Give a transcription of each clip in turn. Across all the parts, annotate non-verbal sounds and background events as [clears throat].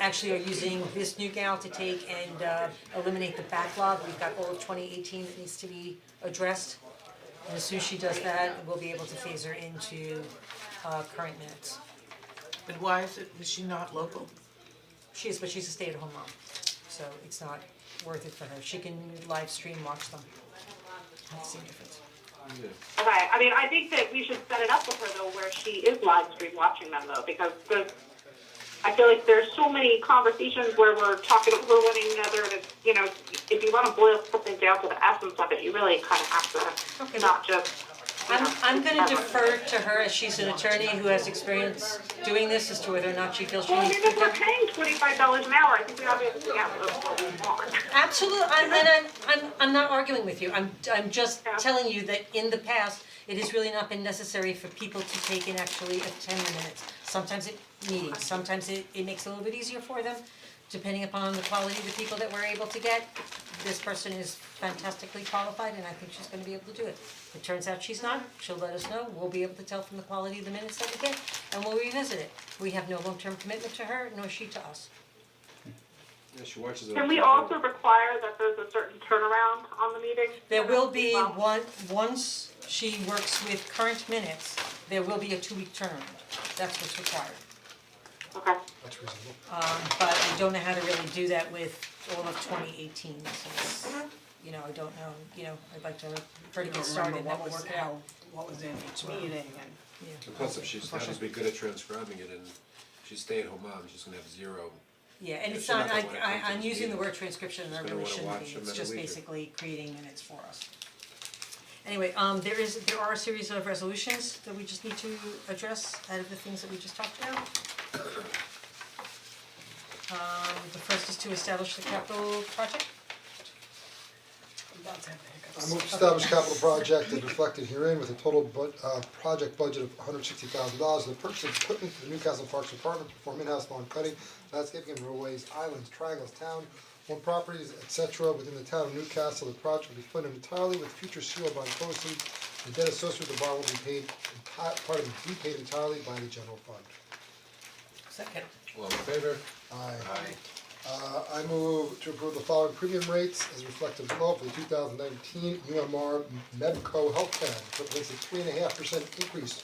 actually are using this new gal to take and uh eliminate the backlog, we've got all of twenty eighteen that needs to be addressed. And as soon as she does that, we'll be able to phase her into uh current minutes. And why is it, is she not local? She is, but she's a stay-at-home mom, so it's not worth it for her, she can live stream watch them. That's the difference. Okay, I mean, I think that we should set it up with her though, where she is live stream watching them though, because there's, I feel like there's so many conversations where we're talking over one another, and it's, you know, if you want to boil something down to the essence of it, you really kind of have Okay. to not just. you I'm know, I'm gonna have a- defer to her as she's an attorney who has experience doing this as to whether or not she feels she Well, I needs mean, to. if we're paying twenty-five dollars an hour, I think we obviously have to know what we want. Absolutely, I'm and I'm I'm I'm not arguing with you, I'm I'm just telling you that in the past, it has really not been necessary for people to take and actually attend the minutes. Sometimes it meetings, sometimes it it makes it a little bit easier for them, depending upon the quality of the people that we're able to get. This person is fantastically qualified and I think she's gonna be able to do it. If it turns out she's not, she'll let us know, we'll be able to tell from the quality of the minutes that we get and we'll revisit it. We have no long-term commitment to her, nor she to us. Yeah, she watches it. Can we also require that there's a certain turnaround on the meeting? There will be Well, one, once she works with current minutes, there will be a two-week turnaround, that's what's required. Okay, That's reasonable. Um, but I don't know how to really do that with all of twenty eighteen, since, you know, I don't know, you know, I'd like to, for it to get started, that will work it out. What was in each meeting and. Yeah. Plus, if she's not as be good at transcribing it and she's stay-at-home mom, she's gonna have zero. Yeah, and Yeah, it's so not, I, that's what I, it I'm is. using the word transcription and I Just gonna really shouldn't wanna watch be, a it's minute just later. basically creating minutes for us. Anyway, um, there is, there are a series of resolutions that we just need to address out of the things that we just talked about. Um, the first is to establish the capital project, I move to establish capital project as reflected herein with a total bud, uh, project budget of hundred sixty thousand dollars, the purchase of equipment for the Newcastle Parks Department to perform in-house lawn cutting, landscaping and roadways, islands, triangles, town, one properties, et cetera, within the town of Newcastle, the project will be funded entirely with future seal bond proceeds, the debt associated with the bond will be paid, enti- part of it be paid entirely by the general fund. second, All in favor? Aye. Uh, I move to approve the following premium rates as reflected below for the two thousand nineteen UMR Medco Health Plan, which represents a three and a half percent increase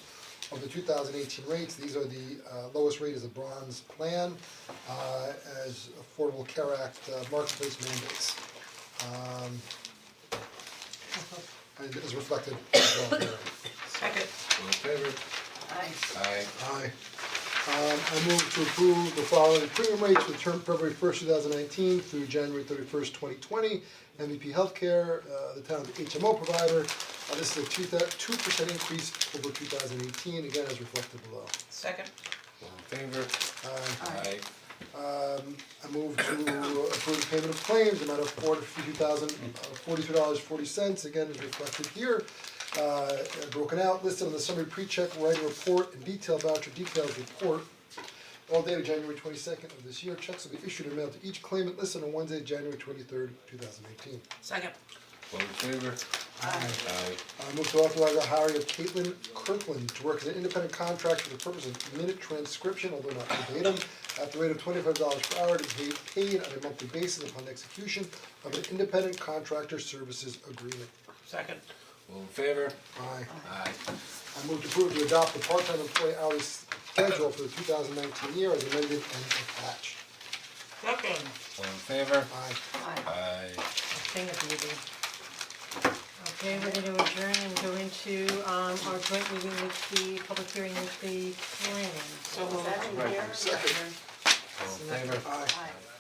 of the two thousand eighteen rates, these are the uh lowest rate is a bronze plan, uh as Affordable Care Act uh, marketplace mandates. Um. And is reflected below there. Second. All in favor? Aye. Aye. Um, I move to approve the following premium rates for the term February first, two thousand nineteen through January thirty-first, twenty twenty. MVP Healthcare, uh, the town's HMO provider, uh, this is a two two percent increase over two thousand eighteen, again as reflected below. Second. All in favor? Aye. Aye. Um, I move to approve the payment of claims, amount of four hundred fifty-two thousand, forty-two dollars, forty cents, again is reflected here. Uh, broken out, listed on the summary pre-check, writing report, and detailed voucher details report. All dated January twenty-second of this year, checks will be issued and mailed to each claimant listed on Wednesday, January twenty-third, two thousand eighteen. Second. All in favor? Aye. I Uh, move to authorize the hiring of Caitlin Kirkland to work as an independent contractor for the purpose of minute transcription, although not verbatim, at the rate of twenty-five dollars per hour to be paid on a monthly basis upon execution of an independent contractor services agreement. Second. All in favor? Aye. Aye. I move to approve to adopt the part-time employee hourly schedule for the two thousand nineteen year as amended and attached. second. All in favor? Aye. Aye. thing at the beginning. Okay, we're gonna adjourn and go into um our joint meeting with the public hearing with the planning. So moved. All in favor?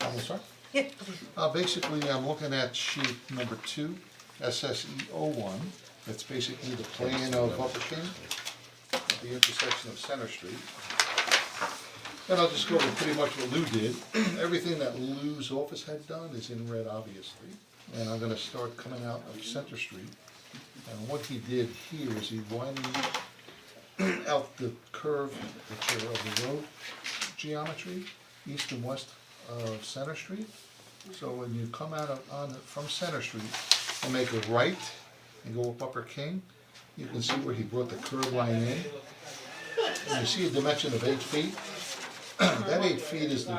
I'm sorry? Yeah, Uh, basically, I'm looking at sheet number two, SSE O oh one, that's basically the plan of Upper King, at the intersection of Center Street. And I'll just go over pretty much what Lou did, [clears throat] everything that Lou's office had done is in red, obviously, and I'm gonna start coming out of Center Street. And what he did here is he widened out the curve, picture of the road geometry, east and west of Center Street. So when you come out of, on, from Center Street and make a right and go up Upper King, you can see where he brought the curb line in. And you see a dimension of eight feet. [clears throat] That eight feet is the